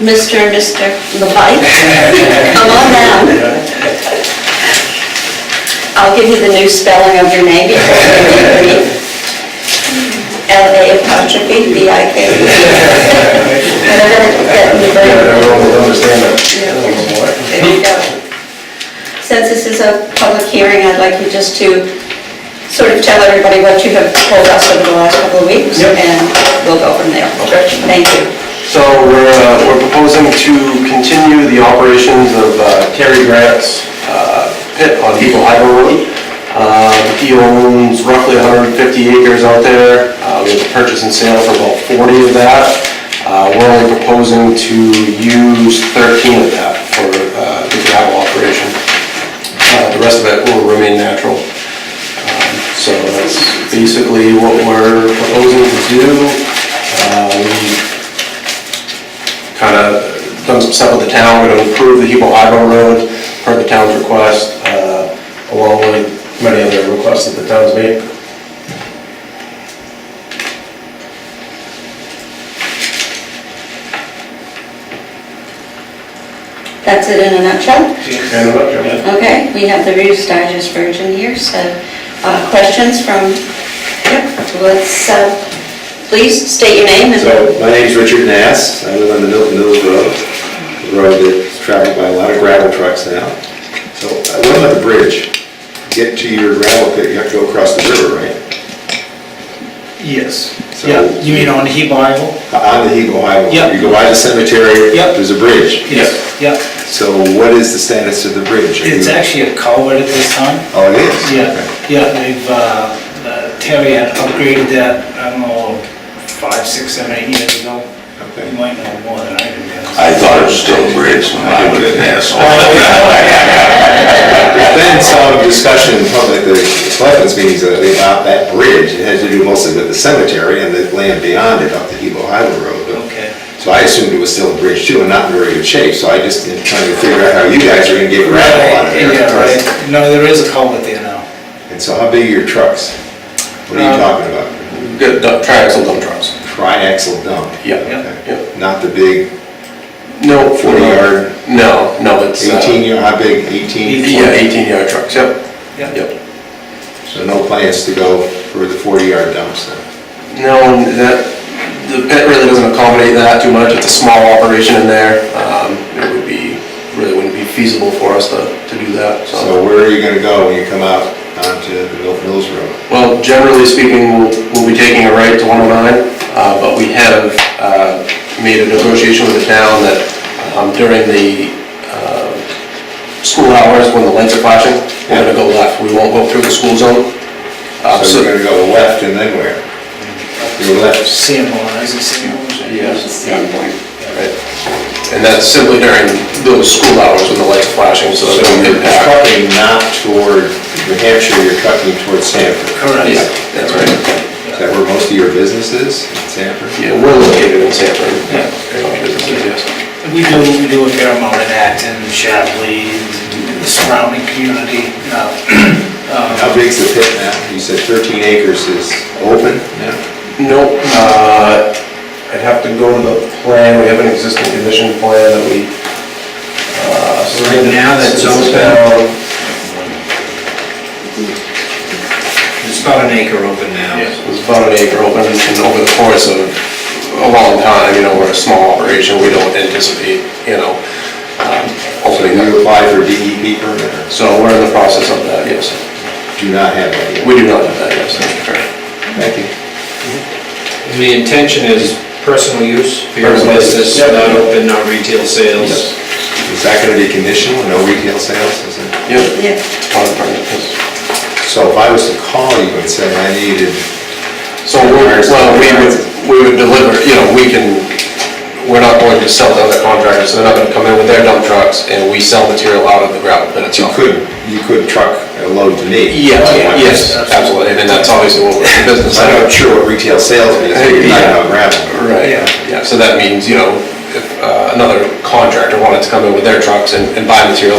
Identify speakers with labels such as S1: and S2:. S1: Mr. and Mr. Levite. Come on down. I'll give you the new spelling of your name. L-A-Apostrophe, B-I-K. Whenever that you bring- There you go. Since this is a public hearing, I'd like you just to sort of tell everybody what you have told us over the last couple of weeks,
S2: Yep.
S1: and we'll go from there.
S2: Okay.
S1: Thank you.
S2: So we're, uh, we're proposing to continue the operations of uh, Terry Grant's uh, pit on Eagle Harbor Road. Um, He owns roughly 150 acres out there. Uh, We have a purchase and sale for about 40 of that. Uh, We're only proposing to use 13 of that for uh, the gravel operation. Uh, The rest of it will remain natural. Um, So that's basically what we're proposing to do. Um, Kind of done some stuff with the town, we're going to improve the Hebo Highway Road per the town's request, uh, along with many other requests that the town's made.
S1: That's it in a nutshell.
S2: And about your-
S1: Okay, we have the Reader's Digest version here, so uh, questions from, yep, let's, uh, please state your name and,
S3: So, my name's Richard Nass, I live on the Milton Mills Road, a road that's traveled by a lot of gravel trucks now. So, I live on the bridge, get to your gravel pit, you have to go across the river, right?
S4: Yes,
S3: So-
S4: yeah, you mean on He Bible?
S3: Uh, On the Hebo Highway.
S4: Yep.
S3: You go by the cemetery,
S4: Yep.
S3: there's a bridge.
S4: Yes. Yep,
S3: So, what is the status of the bridge? Are
S4: it's
S3: you-
S4: actually a culvert at this time.
S3: Oh, it is?
S4: Yeah,
S3: Okay.
S4: yeah, they've, uh, uh, Terry had upgraded that, I don't know, five, six, seven, eight years ago.
S3: Okay.
S4: You might know more than I do. because-
S5: I thought it was still a bridge when I was an
S3: There's been some discussion in public, the selectmen's meetings, uh, about that bridge, it has to do mostly with the cemetery and the land beyond it up the Hebo Highway Road. but-
S4: Okay.
S3: So I assumed it was still a bridge too, and not in very good shape, so I just am trying to figure out how you guys are gonna get gravel out of there.
S4: Yeah, right, no, there is a culvert there now.
S3: And so how big are your trucks? What are you
S4: Um,
S3: talking about?
S2: We've Got dump- triaxle dump trucks.
S3: Tri-axle dump?
S2: Yeah.
S4: Yeah.
S3: Okay. Not the big
S2: No.
S3: 40 yard?
S2: Uh, No, no, it's. uh,
S3: eighteen, yard. how big, eighteen?
S2: Yeah, 18 yard trucks, yep,
S4: Yeah,
S2: yep.
S3: So no plans to go for the forty yard dumps then?
S2: No, that, the pit really doesn't accommodate that too much, it's a small operation in there. Um, It would be, really wouldn't be feasible for us to, to do that, so.
S3: So where are you gonna go when you come out onto the Milton Mills Road?
S2: Well, generally speaking, we'll, we'll be taking a right to 109, uh, but we have uh, made a negotiation with the town that um, during the um, school hours, when the lights are flashing, we're gonna go left, we won't go through the school zone. Uh,
S3: So you're gonna go left and then where? Your left,
S4: Sanborn, is it Sanborn?
S2: Yes. yeah. Right. And that's simply during those school hours when the lights are flashing, so
S3: so
S2: that will
S3: you're
S2: impact.
S3: trucking not toward New Hampshire, you're trucking toward Sanford.
S2: Yeah,
S4: Correct.
S2: that's right.
S3: Is that where most of your business is, in Sanford?
S2: Yeah, we're located in Sanford.
S4: Yeah.
S2: Yeah.
S4: We do, we do a fair amount in Acton, Shapley, and the surrounding community. uh, uh,
S3: How big's the pit now? You said thirteen acres is open now?
S2: Nope, uh, I'd have to go to the plan, we have an existing condition plan that we. uh,
S6: Right now, that's
S2: since it's
S6: open.
S2: down.
S6: It's about an acre open now.
S2: It was about an acre open, and over the course of a long time, you know, we're a small operation, we don't anticipate, you know, um,
S3: So
S2: opening up.
S3: you apply for DEP permit? or
S2: So we're in the process of that, yes.
S3: Do not have that yet?
S2: We do not have that, yes, that's correct.
S3: Thank you.
S6: And the intention is personal use for your
S2: Personal use,
S6: business,
S2: yeah.
S6: not open, not retail sales.
S3: Is that gonna be conditional, no retail sales, is it?
S2: Yep,
S1: yeah,
S2: part of the permit, yes.
S3: So if I was to call you and say I needed,
S2: So we're, well, we would, we would deliver, you know, we can, we're not going to sell to other contractors, so they're not gonna come in with their dump trucks, and we sell material out of the gravel pit
S3: you
S2: itself.
S3: could, you could truck a load to me?
S2: Yeah, yes, absolutely, and then that's obviously what we're in business.
S3: I'm not sure what retail sales means, but you're talking about gravel.
S2: Right,
S4: Yeah.
S2: yeah, so that means, you know, if uh, another contractor wanted to come in with their trucks and and buy material